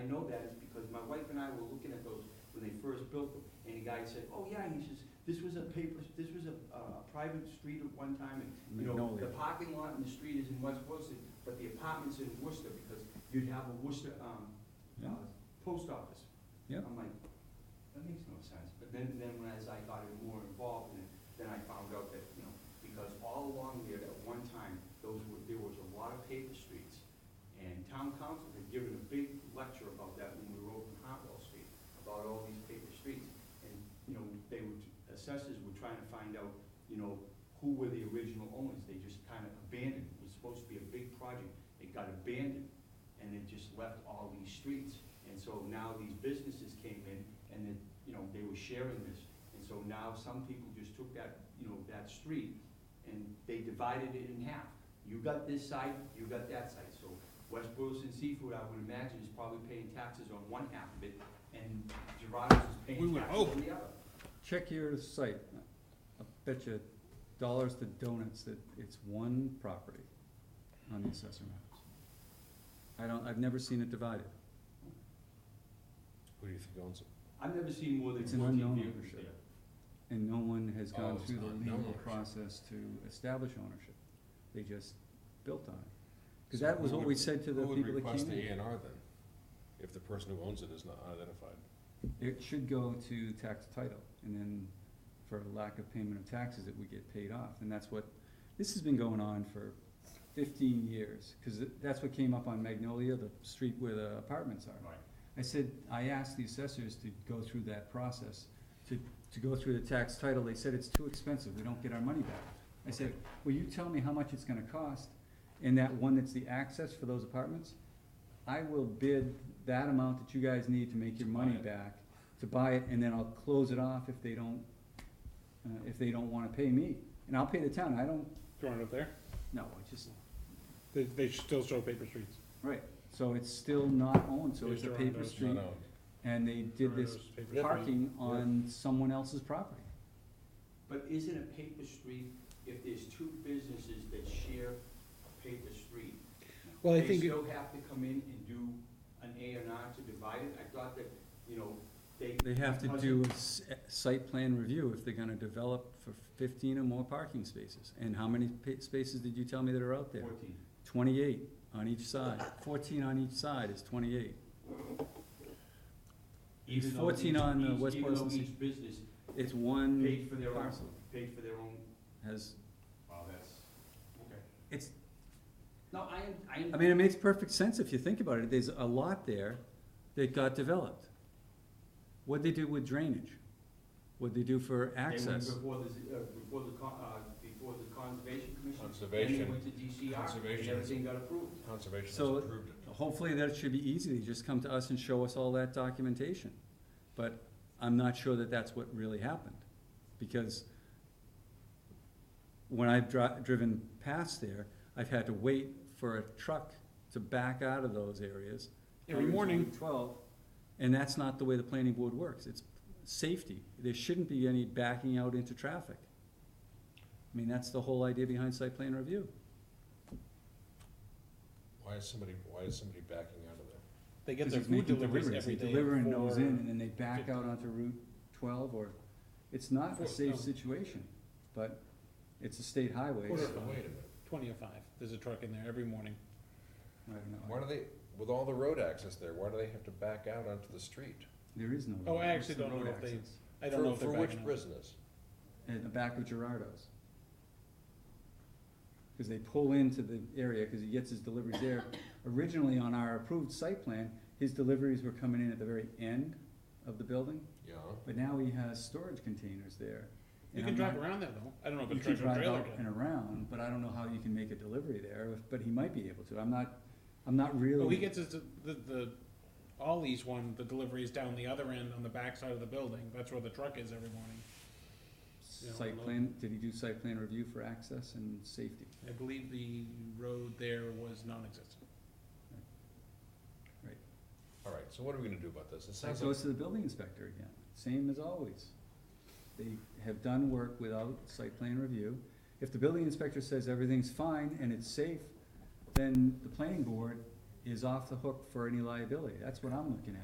know that is because my wife and I were looking at those when they first built them, and the guy said, oh, yeah, he says, this was a paper, this was a, uh, a private street at one time, and, you know, Magnolia. the parking lot and the street is in West Boylston, but the apartment's in Worcester, because you'd have a Worcester, um, uh, Yeah. post office. Yeah. I'm like, that makes no sense, but then, then when as I got more involved in it, then I found out that, you know, because all along there at one time, those were, there was a lot of paper streets. And town council had given a big lecture about that when we were open Hartwell Street, about all these paper streets. And, you know, they were, assessors were trying to find out, you know, who were the original owners, they just kind of abandoned, it was supposed to be a big project, it got abandoned, and it just left all these streets. And so now these businesses came in, and then, you know, they were sharing this, and so now some people just took that, you know, that street, and they divided it in half. You got this side, you got that side, so West Boylston Seafood, I would imagine, is probably paying taxes on one half of it, and Gerardo's is We paying would taxes on the other. Check your site, I bet you dollars to donuts that it's one property on the assessor maps. I don't, I've never seen it divided, Who do you think owns it? I've never seen more than It's an fourteen unknown vehicles ownership. there. and no one has Oh, gone it's through not the known legal ownership. process to establish ownership, they just built on it. Cause So that was who what would- we said to the people that Who would request came the A in, and R then, if the person who owns it is not identified? it should go to tax title, and then for lack of payment of taxes, it would get paid off, and that's what, this has been going on for fifteen years, cause it- that's what came up on Magnolia, the street where the apartments are. Right. I said, I asked the assessors to go through that process, to, to go through the tax title, they said it's too expensive, we don't get our money back. I said, will you tell me how much it's gonna cost, and that one that's the access for those apartments? I will bid that amount that you guys need to make your To buy money it. back, to buy it, and then I'll close it off if they don't, uh, if they don't wanna pay me, and I'll pay the town, I don't, Throwing it up there, no, I just, they, they should still show paper streets. right, so it's still not owned, so They it's a draw paper those, It's not street, owned. and they did Throwing this those paper Yeah. streets. parking on someone else's property. But isn't a paper street, if there's two businesses that share a paper street, Well, I they think it- still have to come in and do an A and R to divide it? I thought that, you know, they. They have to because do a s- a site plan review if they're gonna develop for fifteen or more parking spaces. And how many pa- spaces did you tell me that are out there? Fourteen. Twenty-eight on each side. Fourteen on each side is twenty-eight. It's Even though 14 each- on, uh, each- West Even though Boylston. each business It's one paid for their own, parcel, paid for their own, has, wow, that's, okay. it's, No, I, am- I. am- I mean, it makes perfect sense if you think about it. There's a lot there that got developed. What'd they do with drainage? What'd they do They for went access? Before the, z- uh, before the, con- uh, before the conservation commission. Then they Conservation, went to DCR, and Conservation. everything got approved. conservation has So- approved it. Hopefully that should be easy, They just come to us and show us all that documentation. But I'm not sure that that's what really happened, because when I've dri- driven past there, I've had to wait for a truck to back out of those areas. Every on Route morning. Twelve, and that's not the way the planning board works, it's safety, there shouldn't be any backing out into traffic. I mean, that's the whole idea behind site plan review. Why is somebody, why is somebody backing out of there? They get Because their it's making food deliveries deliveries. every day. They deliver and nose in, for- and then they back out onto Route twelve, or, it's not For- a safe um, situation, but it's a state highway, Quarter so, of So five. Wait a minute, Twenty or five, there's a truck in there every morning. I don't why know, do they, with all the road access there, why do they have to back out onto the street? there is no. Oh, I road- actually what's the don't know road if they- access? I don't For- know if they're For backing which up. business? In the back of Gerardo's. Cause they pull into the area, cause he gets his deliveries there, originally on our approved site plan, his deliveries were coming in at the very end of the building, Yeah, but now he has storage containers there. and You can I'm drive not- around there though, I don't know if You a can truck or drive trailer out can. and around, but I don't know how you can make a delivery there, if- but he might be able to, I'm not, I'm not But he really, gets his, the, the, Ollie's one, the delivery is down the other end on the back side of the building, that's where the truck is every morning. Yeah, site well- plan, did he do site plan review for access and safety? I believe the road there was non-existent. all right, so what are we gonna do about this? It That sounds like, goes to the building inspector again, same as always. They have done work without site plan review. If the building inspector says everything's fine and it's safe, then the planning board is off the hook for any liability, that's what I'm looking at.